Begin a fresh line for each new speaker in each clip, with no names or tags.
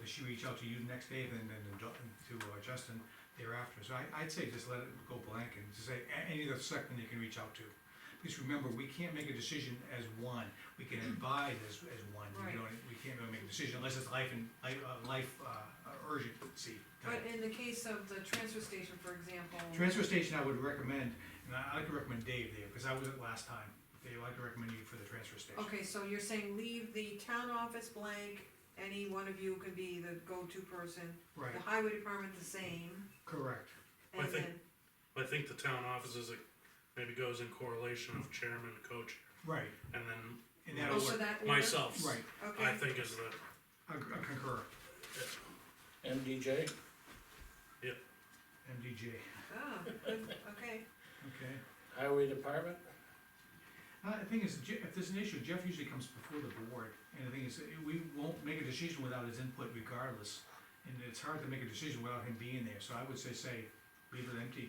does she reach out to you the next day, then, then to Do- to uh, Justin thereafter? So I, I'd say just let it go blank and just say, a- any of the selectmen you can reach out to. Because remember, we can't make a decision as one, we can advise as, as one,
Right.
you know, we can't really make a decision unless it's life and, life, uh, life, uh, urgency. type.
But in the case of the transfer station, for example,
Transfer station, I would recommend, and I, I like to recommend Dave there, because I was at last time, Dave, I'd like to recommend you for the transfer station.
okay, so you're saying leave the town office blank, any one of you can be the go-to person.
Right,
The highway department the same,
correct,
I
and
think-
then,
I think the town office is, a- maybe goes in correlation of chairman, coach,
right,
and then
and
oh,
that'll
so
work,
that order?
myself,
right,
I
Okay,
think is the,
I I concur,
MDJ,
MDJ,
ah, good, okay,
okay.
Highway Department,
Uh, the thing is, Je- if there's an issue, Jeff usually comes before the board, and the thing is, eh, we won't make a decision without his input regardless. And it's hard to make a decision without him being there, so I would say, say, leave it empty.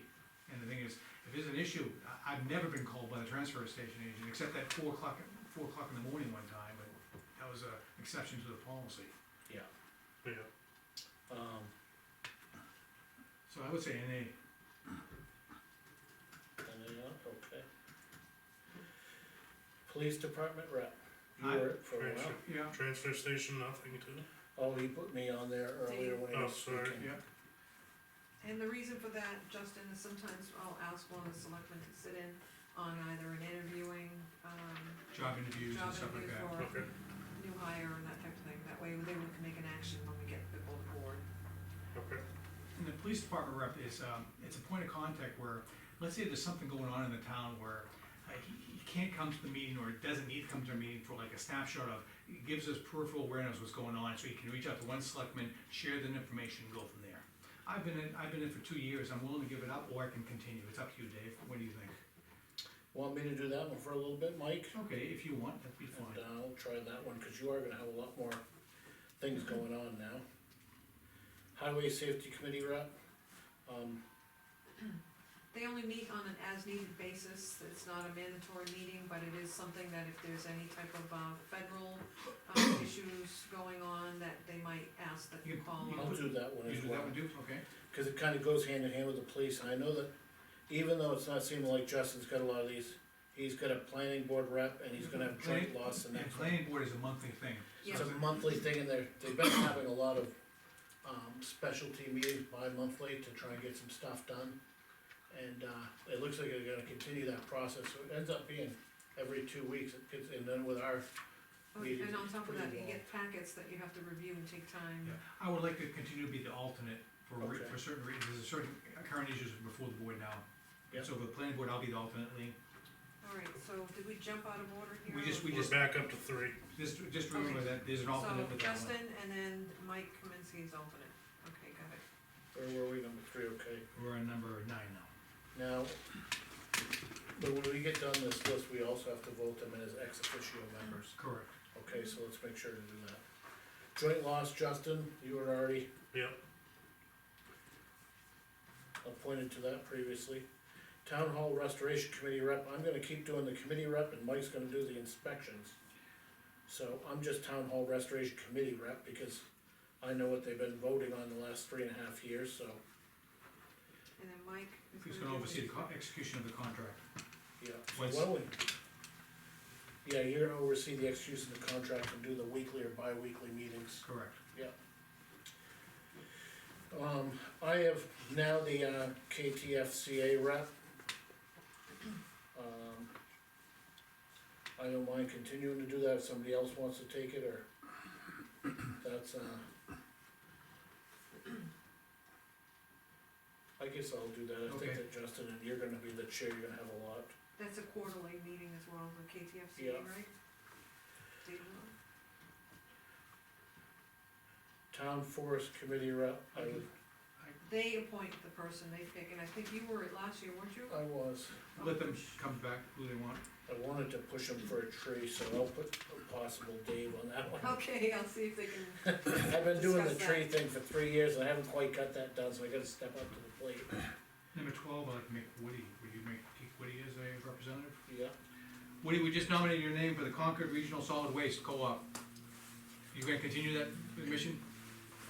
And the thing is, if there's an issue, I, I've never been called by the transfer station agent, except that four o'clock, four o'clock in the morning one time, but that was a exception to the policy.
yeah,
yeah,
um,
So I would say NA,
anything else, okay. Police Department rep, you
I-
were it for a while,
transfer,
yeah,
transfer station, nothing to,
oh, he put me on there earlier when he
Oh,
was
sorry.
speaking.
yeah,
and the reason for that, Justin, is sometimes I'll ask one of the selectmen to sit in on either an interviewing, um,
job interviews
job
and stuff like
interview
that.
for
okay,
new hire and that type of thing, that way they can make an action when we get the full board.
okay,
And the police department rep is, um, it's a point of contact where, let's say there's something going on in the town where uh, he, he can't come to the meeting or doesn't need to come to a meeting for like a snapshot of, it gives us peripheral awareness of what's going on, so he can reach out to one selectman, share the information, and go from there. I've been in, I've been in for two years, I'm willing to give it up, or I can continue, it's up to you, Dave, what do you think?
Want me to do that one for a little bit, Mike?
Okay, if you want, that'd be
And
fine.
I'll try that one, cause you are gonna have a lot more things
Mm-hmm.
going on now. Highway Safety Committee rep, um,
They only meet on an as-needed basis, it's not a mandatory meeting, but it is something that if there's any type of, uh, federal, um, issues going on, that they might ask that you
You-
call.
you-
I'll do that one
You
as
do
well.
that one, do, okay?
Cause it kinda goes hand in hand with the police, and I know that, even though it's not seeming like Justin's got a lot of these, he's got a planning board rep, and he's gonna have joint loss and
And
that.
planning board is a monthly thing.
Yeah.
It's a monthly thing, and they're, they've been having a lot of, um, specialty meetings bi-monthly to try and get some stuff done. And, uh, it looks like they're gonna continue that process, so it ends up being every two weeks, it gets, and then with our,
Oh,
meeting
And on top of
pretty
that, you
long.
get packets that you have to review and take time.
Yeah, I would like to continue to be the alternate for, re-
Okay.
for certain reasons, there's certain current issues before the board now.
Yeah.
So for the planning board, I'll be the alternate, Lean.
Alright, so did we jump out of order here?
We just, we
we're
just,
back up to three,
just, just remember
Okay.
that there's an alternate
So
with that one.
Justin and then Mike Kaminsky is alternate, okay, got it.
where were we, number three, okay?
We're on number nine now.
Now, but when we get done this list, we also have to vote them in as ex officio members,
Correct.
okay, so let's make sure to do that. Joint loss, Justin, you were already
yep,
appointed to that previously. Town Hall Restoration Committee rep, I'm gonna keep doing the committee rep and Mike's gonna do the inspections. So I'm just Town Hall Restoration Committee rep because I know what they've been voting on the last three and a half years, so,
And then Mike is
He's
gonna
gonna
do
oversee the
the-
co- execution of the contract.
yeah. So
Once-
why don't we- Yeah, you're gonna oversee the execution of the contract and do the weekly or bi-weekly meetings.
Correct.
Um, I have now the uh, KTFCA rep. Um, I don't mind continuing to do that if somebody else wants to take it, or that's, uh. I guess I'll do that, I
Okay.
think that Justin, and you're gonna be the chair, you're gonna have a lot.
That's a quarterly meeting as well, the KTFC,
Yeah.
right? Dayton?
Town Forest Committee rep, I was,
They appoint the person they pick, and I think you were it last year, weren't you?
I was,
Oh.
Let them come back who they want.
I wanted to push him for a tree, so I'll put a possible Dave on that one.
Okay, I'll see if they can,
I've been doing the
Discuss
tree
that.
thing for three years and I haven't quite got that done, so I gotta step up to the plate.
Number twelve, I'd like to make Woody, would you make, keep Woody as a representative?
Yeah,
Woody, we just nominated your name for the Concord Regional Solid Waste Co-op. You gonna continue that mission?